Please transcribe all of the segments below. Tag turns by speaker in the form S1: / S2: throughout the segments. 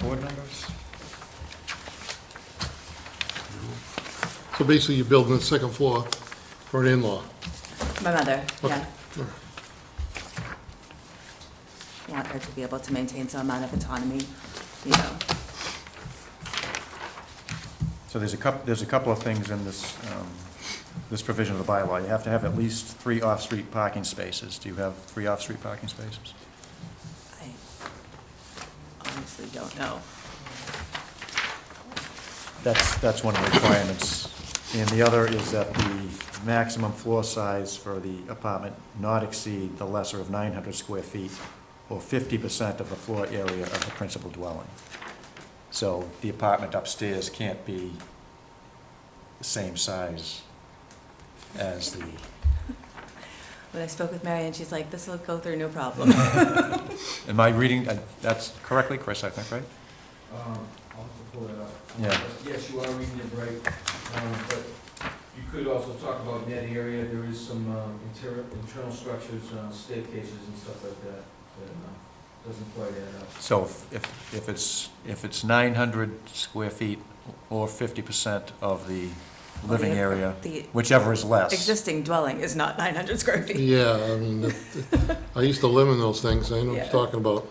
S1: board members?
S2: So basically, you're building a second floor for an in-law.
S3: My mother, yeah.
S2: Okay. All right.
S3: Want her to be able to maintain some amount of autonomy, you know.
S1: So there's a couple, there's a couple of things in this, um, this provision of the bylaw. You have to have at least three off-street parking spaces. Do you have three off-street parking spaces?
S3: I honestly don't know.
S1: That's, that's one of the requirements. And the other is that the maximum floor size for the apartment not exceed the lesser of 900 square feet or 50% of the floor area of the principal dwelling. So the apartment upstairs can't be the same size as the,
S3: When I spoke with Mary Ann, she's like, this will go through no problem.
S1: am I reading, uh, that's correctly, Chris, I think, right?
S4: Um, I'll have to pull that up.
S1: Yeah.
S4: But Yes, you are reading it right, um, but you could also talk about net area, there is some, um, interior, internal structures, uh, staircases and stuff like that, that, uh, doesn't quite add up.
S1: So if- if, if it's, if it's 900 square feet or 50% of the living area,
S3: The
S1: whichever is less.
S3: existing dwelling is not 900 square feet.
S2: Yeah, I mean, it- it- I used to live in those things, I know what
S3: Yeah.
S2: you're talking about.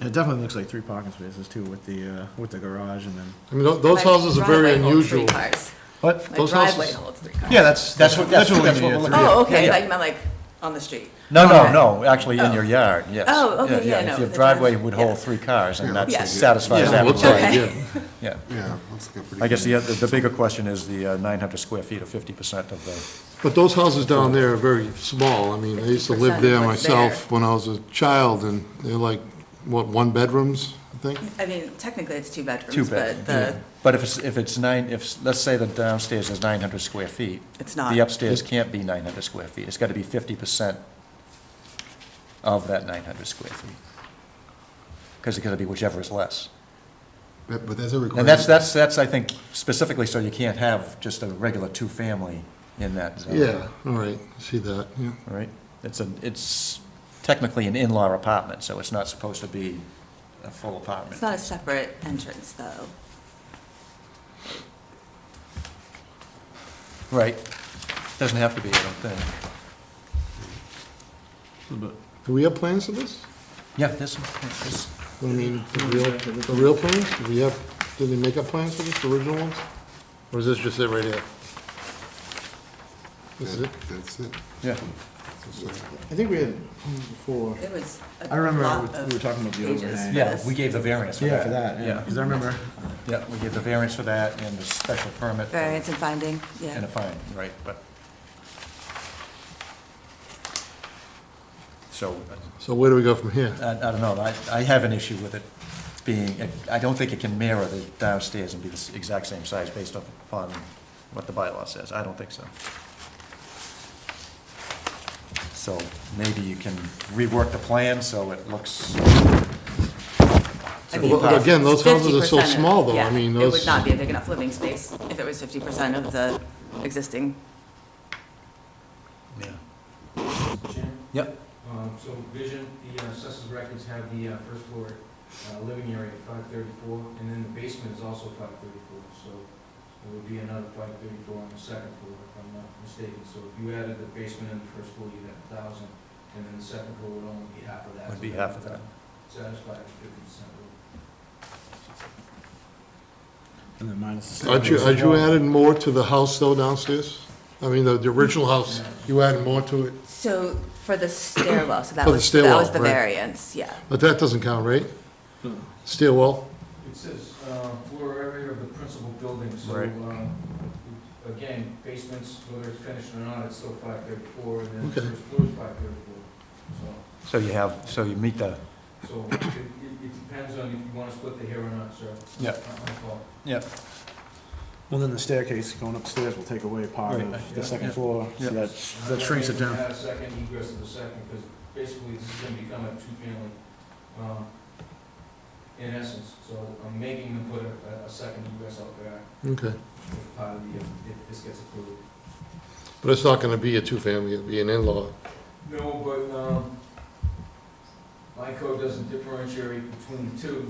S5: It definitely looks like three parking spaces too with the, uh, with the garage and then.
S2: I mean, tho- those
S3: My
S2: houses are very
S3: driveway holds three
S2: unusual.
S3: cars.
S1: What?
S3: My
S2: Those
S3: driveway
S2: houses-
S3: holds three cars.
S1: Yeah, that's, that's what, that's what we're looking at.
S3: Oh, okay,
S1: Yeah,
S3: like,
S1: yeah.
S3: I'm like, on the street.
S1: No, no,
S3: Okay.
S1: no, actually in your yard, yes.
S3: Oh, okay, yeah,
S1: If
S3: no,
S1: your
S3: the
S1: driveway
S3: drive-
S1: would
S3: yeah.
S1: hold three cars, and
S3: Yeah.
S1: that satisfies
S2: Yeah,
S1: that
S2: it looks like,
S1: requirement,
S3: Okay.
S2: yeah.
S1: yeah.
S6: Yeah, let's get pretty.
S1: I guess the, oth- the bigger question is the uh, 900 square feet or 50% of the,
S2: But those houses down there are very small. I mean, I used to live
S3: 50%
S2: there
S3: was there.
S2: myself when I was a child, and they're like, what, one bedrooms, I think?
S3: I mean, technically it's two
S1: two
S3: bedrooms, but
S1: bedroom.
S3: the,
S1: But if it's, if it's nine, if, s- let's say the downstairs is 900 square feet,
S3: it's
S1: the
S3: not.
S1: upstairs can't be 900 square feet. It's got to be 50% of that 900 square feet. Because it's going to be whichever is less.
S6: But but there's a requirement.
S1: And that's, that's, that's, I think, specifically so you can't have just a regular two-family in that zone.
S2: Yeah, all right, see that, yeah.
S1: All Right? It's a, it's technically an in-law apartment, so it's not supposed to be a full
S3: It's
S1: apartment.
S3: not a separate entrance, though.
S1: Right. Doesn't have to be, I don't think.
S2: Do we have plans for this?
S1: Yeah, this, this,
S2: I mean, the real, the real plans? Do we have, did they make up plans for this, the original ones? Or is this just it right here? This is it?
S6: That- That's it.
S1: yeah.
S5: I think we had before.
S3: It was a lot of.
S5: I remember we were talking about the
S3: pages
S5: overhang.
S3: for
S1: Yeah,
S3: this.
S1: we gave the variance for that.
S5: Yeah, for that, yeah, because I remember,
S1: Yeah, we gave the variance for that and the special permit
S3: Variance and finding, yeah.
S1: and a fine, right, but. So,
S2: So where do we go from here?
S1: I, I don't know, I, I have an issue with it being, I don't think it can mirror the downstairs and be the s- exact same size based up upon what the bylaw says, I don't think so. So maybe you can rework the plan so it looks,
S3: I mean,
S2: Well, Again, those houses are so
S3: 50% of-
S2: small, though,
S3: yeah,
S2: I mean,
S3: It
S2: those,
S3: would not be a big enough living space if it was fifty percent of the existing.
S1: yeah.
S4: Mr. Chairman?
S1: Yep.
S4: Um, so vision, the uh, assessors records have the uh, first floor, uh, living area at five thirty-four, and then the basement is also five thirty-four, so it would be another five thirty-four on the second floor, if I'm not mistaken. So if you added the basement and the first floor, you'd have a thousand, and then the second floor would only be half of that.
S1: Would be
S4: so
S1: half of that.
S4: Satisfied with fifty percent rule.
S5: and then minus the.
S2: aren't you, aren't you adding more to the house though downstairs? I mean, the, the original house, you added more to it,
S3: So for the stairwell, so that
S2: For the
S3: was, that
S2: stairwell,
S3: was the
S2: right.
S3: variance, yeah.
S2: but that doesn't count, right? Stairwell,
S4: It says, uh, floor area of the principal building, so,
S1: Right.
S4: um, again, basements, whether it's finished or not, it's still five thirty-four, and then the
S2: Okay.
S4: first floor is five thirty-four.
S1: So you have, so you meet the,
S4: So, so it, it it depends on if you wanna split the hair or not, sir.
S1: Yeah.
S4: Not my fault.
S1: yeah,
S5: Well, then the staircase going upstairs will take away part
S1: Right,
S5: of
S1: yeah,
S5: the second
S1: yeah.
S5: floor,
S1: Yeah.
S5: so that, that shrinks it
S4: I'm
S5: down.
S4: not gonna add a second egress to the second, because basically this is gonna become a two-family, um, in essence, so I'm making them put a, a- a second egress out there
S2: okay,
S4: as part of the, if if this gets approved.
S2: but it's not gonna be a two-family, it'll be an in-law.
S4: No, but, um, my code doesn't differentiate between the two,